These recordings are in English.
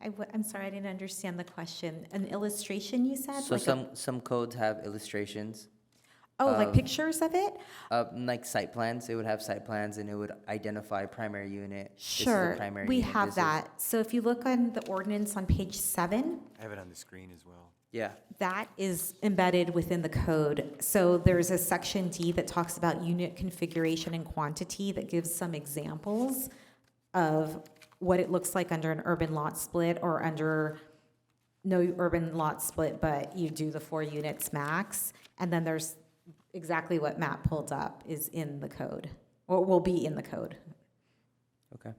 I, am sorry, I didn't understand the question. An illustration, you said? So Like a- some, um, some codes have illustrations, Oh, like of- pictures of it? uh, like site plans, it would have site plans and it would identify primary unit. this is the Sure, primary we unit, this have is- that. So if you look on the ordinance on page seven, I have it on the screen as well. Yeah, that is embedded within the code. So there's a section D that talks about unit configuration and quantity that gives some examples of what it looks like under an urban lot split or under no urban lot split, but you do the four units max. And then there's exactly what Matt pulled up is in the code, or will be in the code. okay.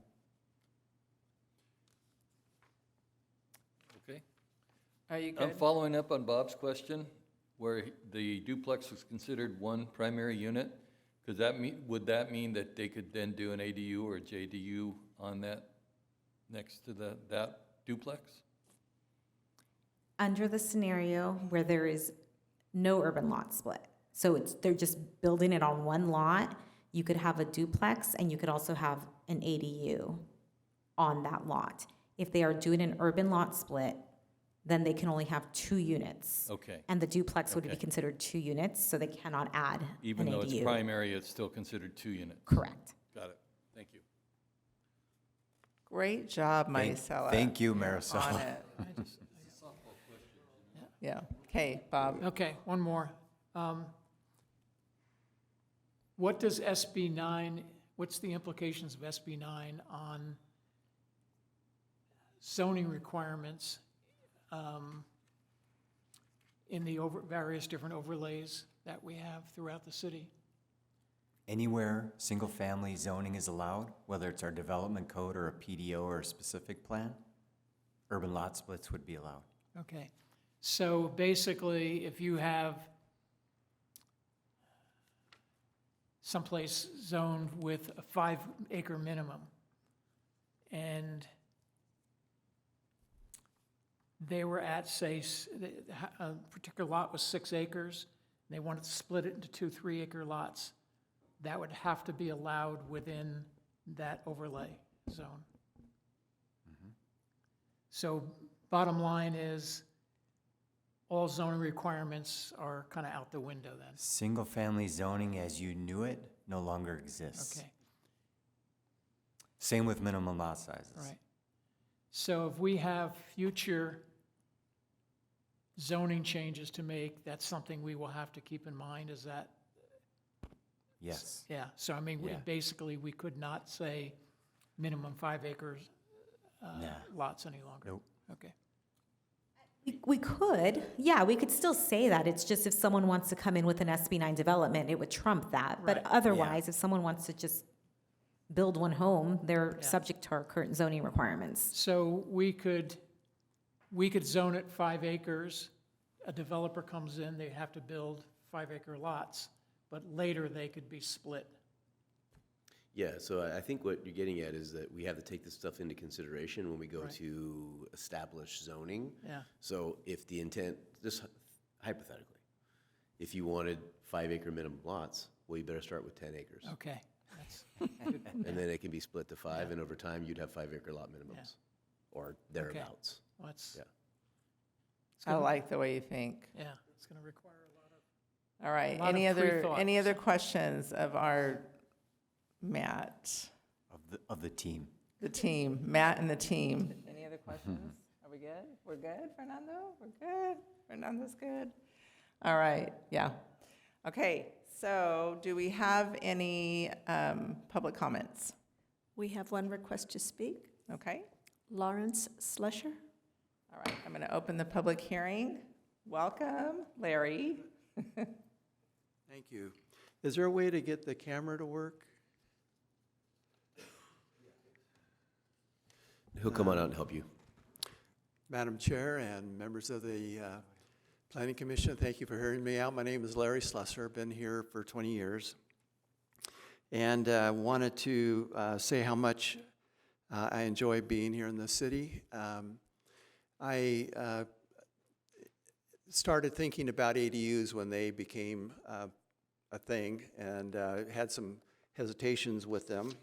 Okay. Are you I'm good? following up on Bob's question, where the duplex was considered one primary unit. Could that mean, would that mean that they could then do an ADU or a JDU on that, next to the, that duplex? Under the scenario where there is no urban lot split, so it's, they're just building it on one lot, you could have a duplex and you could also have an ADU on that lot. If they are doing an urban lot split, then they can only have two units. Okay. And the duplex would be Okay. considered two units, so they cannot add an ADU. Even though it's primary, it's still considered two unit. Correct. Got it. Thank you. Great job, Thank- Maricela. Thank you, On Marisol. it. Yeah, okay, Bob. Okay, one more. Um, What does SB 9, what's the implications of SB 9 on zoning requirements um, in the over, various different overlays that we have throughout the city? Anywhere single-family zoning is allowed, whether it's our development code or a PDO or a specific plan, urban lot splits would be allowed. Okay, so basically, if you have someplace zoned with a five acre minimum, and they were at, say, s- the- the ha- a particular lot was six acres, and they wanted to split it into two three acre lots, that would have to be allowed within that overlay zone. So bottom line is, all zoning requirements are kind of out the window then. Single-family zoning as you knew it no longer exists. Okay, Same with minimum lot sizes. all right. So if we have future zoning changes to make, that's something we will have to keep in mind, is that, Yes, yeah. So I mean, we- Yeah. basically, we could not say minimum five acres uh, Nah. lots any longer. Nope. Okay, We- We could, yeah, we could still say that. It's just if someone wants to come in with an SB nine development, it would trump that. But Right. otherwise, if someone wants to just build one home, they're Yeah. subject to our current zoning requirements. so we could, we could zone it five acres. A developer comes in, they have to build five acre lots, but later they could be split. Yeah, so I- I think what you're getting at is that we have to take this stuff into consideration when we go Right. to establish zoning. Yeah. So if the intent, this hypothetically, if you wanted five acre minimum lots, well, you better start with ten acres. Okay. That's- And then it can be split to five, and over time, you'd have five acre lot minimums or thereabouts. well, That's, Yeah. I like the way you think. yeah, it's going to require a lot of, All right, lot of any free other, thought, any other questions of our Matt, of the, of the team. the team, Matt and the team? Any other questions? Are we good? We're good, Fernando? We're good? Fernando's good? All right, yeah. Okay, so do we have any um, public comments? We have one request to speak. Okay, Lawrence Slusher. all right, I'm going to open the public hearing. Welcome, Larry. Thank you. Is there a way to get the camera to work? He'll come on out and help you. Madam Chair and members of the uh, Planning Commission, thank you for hearing me out. My name is Larry Slusser, been here for 20 years. And uh, wanted to uh, say how much uh, I enjoy being here in the city. Um, I uh, started thinking about ADUs when they became uh, a thing and uh, had some hesitations with them.